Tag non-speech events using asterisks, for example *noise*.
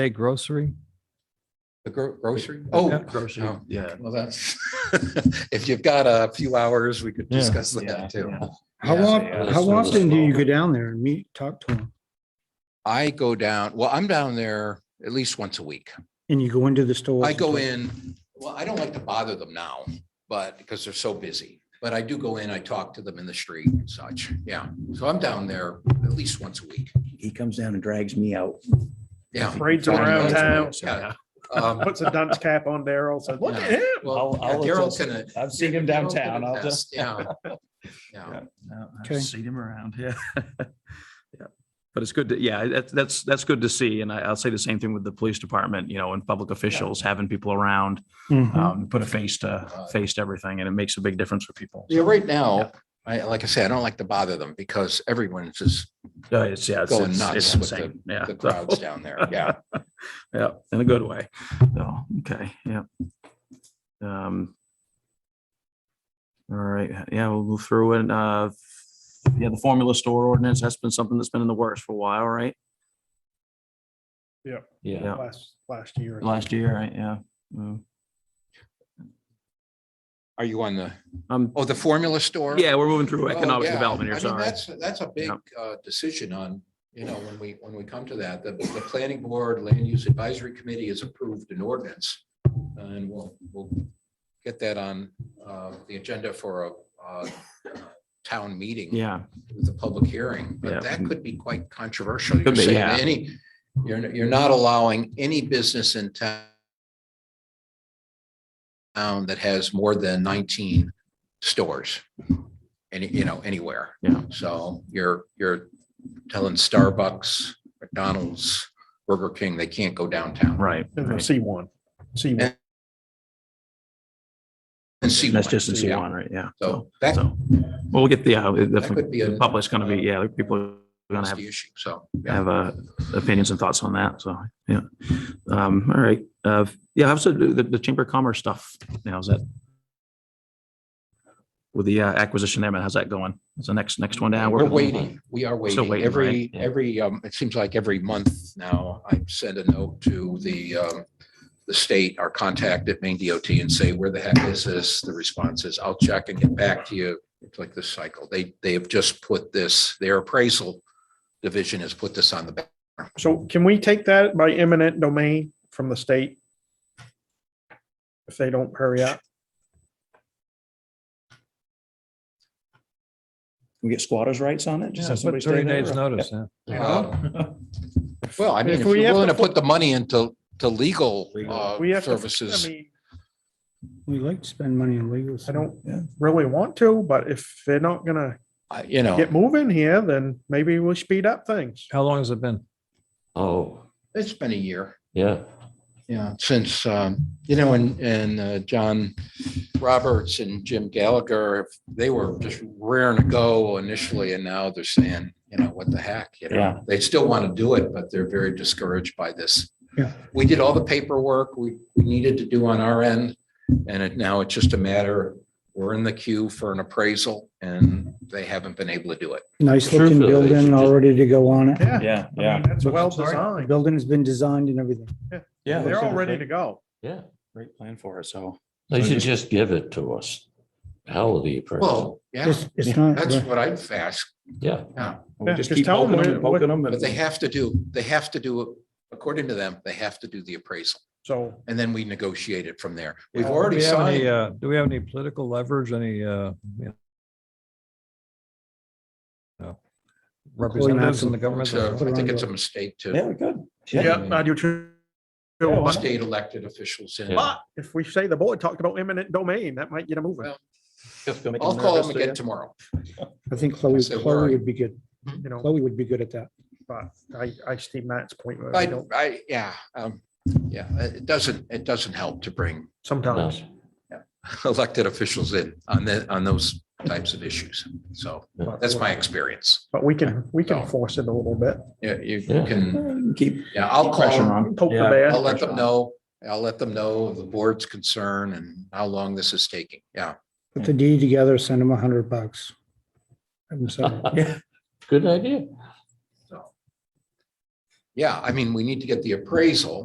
say grocery? The gro- grocery? Oh, Grocery, oh. yeah. well, that's, *laughs* if you've got a few hours, we could Yeah. discuss Yeah, that too. yeah. How Yeah. often, yeah, how so it's often do you small. go down there and meet, talk to them? I go down, well, I'm down there at least once a week. And you go into the store? I go in, well, I don't like to bother them now, but because they're so busy. But I do go in, I talk to them in the street and such. Yeah. So I'm down there at least once a week. He comes down and drags me out. *laughs* Yeah. Parades him around town, Yeah. Um, puts a dunce cap on Daryl, says, look at him. well, I'll- I'll yeah, Daryl's attest. gonna- I've seen him Daryl's downtown. gonna I'll just. attest. Yeah. Yeah. Okay. Seen him around, *laughs* yeah. Yeah. But it's good to, yeah, that's, that's, that's good to see. And I, I'll say the same thing with the police department, you know, and public officials, having people around, Mm-hmm. Mhm. um, put a face to, face to everything and it makes a big difference for people. Yeah, right now, I, like I said, I don't like to bother them because everyone's just Yeah, Uh, it's, yeah, it's, Going it's nuts it's with the- insane. *laughs* Yeah. the so- crowds down there. Yeah. *laughs* Yeah, in a good way. So, okay, yeah. Um. All right, yeah, we'll move through and, uh, yeah, the formula store ordinance, that's been something that's been in the works for a while, right? Yeah. Last, last year. Last year, right, yeah. Mm. Are you on the, Um, oh, the formula store? yeah, we're moving through Oh, economic yeah. development here, I mean, sorry. That's, that's a big Yeah. uh, decision on, you know, when we, when we come to that, the, the planning board, land use advisory committee has approved an ordinance. And we'll, we'll get that on uh, the agenda for a uh, town meeting. Yeah, With a public hearing, Yeah. but that could be quite controversial. You're Could be, saying yeah. Any, you're, you're not allowing any business in town town that has more than nineteen stores, any, you know, anywhere. Yeah. So you're, you're telling Starbucks, McDonald's, Burger King, they can't go downtown. right. Never right. see one. See one. And see That's one. just in C Yeah. one, right, yeah. So that, So, well, we'll get the, uh, that could the be a. public's gonna be, yeah, the people are gonna that's have the issue, so. yeah. have uh, opinions and thoughts on that. So, yeah. Um, All right. Uh, Yeah, I also the, the Chamber of Commerce stuff now is that with the uh, acquisition there, man, how's that going? Is the next, next one down? We're waiting. We are Still waiting. waiting, right? Every, Yeah. every, um, it seems like every month now, I send a note to the, um, the state, our contact at Maine DOT and say, where the heck is this? The response is, I'll check and get back to you. It's like this cycle. They, they have just put this, their appraisal division has put this on the back. So can we take that by eminent domain from the state? If they don't hurry up, We get squatters' rights on it? Just Yeah, have somebody put stay thirty there? days notice, huh? you know, *laughs* Uh, Well, I mean, If if we you're have willing to to put the money into, to legal uh, we have to, I services. mean, We like to spend money on legal. I stuff. don't Yeah. really want to, but if they're not gonna I- You know, get moving here, then maybe we'll speed up things. How long has it been? Oh, it's been a year. yeah. Yeah, since, um, you know, and, and uh, John Roberts and Jim Gallagher, they were just raring to go initially, and now they're saying, you know, what the heck, you Yeah. know? They still want to do it, but they're very discouraged by this. Yeah. We did all the paperwork we we needed to do on our end, and it, now it's just a matter, we're in the queue for an appraisal, and they haven't been able to do it. Nice Sure, looking Phil, they should building just- all ready to go on it. Yeah, Yeah, I mean, yeah. that's But- well Sorry. The designed. Building has been designed and everything. Yeah. They're all ready to go. Yeah, Great plan for it. So they should just give it to us. Hell of the appraisal. Well, yeah, It's, it's not, that's what I've asked. Yeah, Yeah, we just just keep tell 'em poking them what- and poking them. But they have to do, they have to do, it according to them, they have to do the appraisal. So And then we negotiate it from there. We've Uh, do already we have any, signed. uh, Do we have any political leverage, any, uh, you know, representatives in the government? it's a- I think it's a mistake Yeah, to we could. Yeah, I do too. put But state elected officials in. Yeah. if we say the board talked about eminent domain, that might get them moving, Well, I'll call them again tomorrow. I think Chloe, So where are Chloe you? would be good. you know, Chloe would be good at that. but I, I see Matt's point. where I I, don't, I, yeah, um, yeah, it doesn't, it doesn't help to bring *laughs* sometimes. *laughs* elected officials in on the, on those types of issues. So but- that's my experience. But we can, we can So- force it a little bit. Yeah, you Yeah. can, Keep yeah, I'll call pressure them. on. Poke the Yeah. bear. I'll let them know, I'll let them know of the board's concern and how long this is taking. Yeah. Put the deed together, send them a hundred bucks. Have them sign it. Good idea. So. Yeah, I mean, we need to get the appraisal.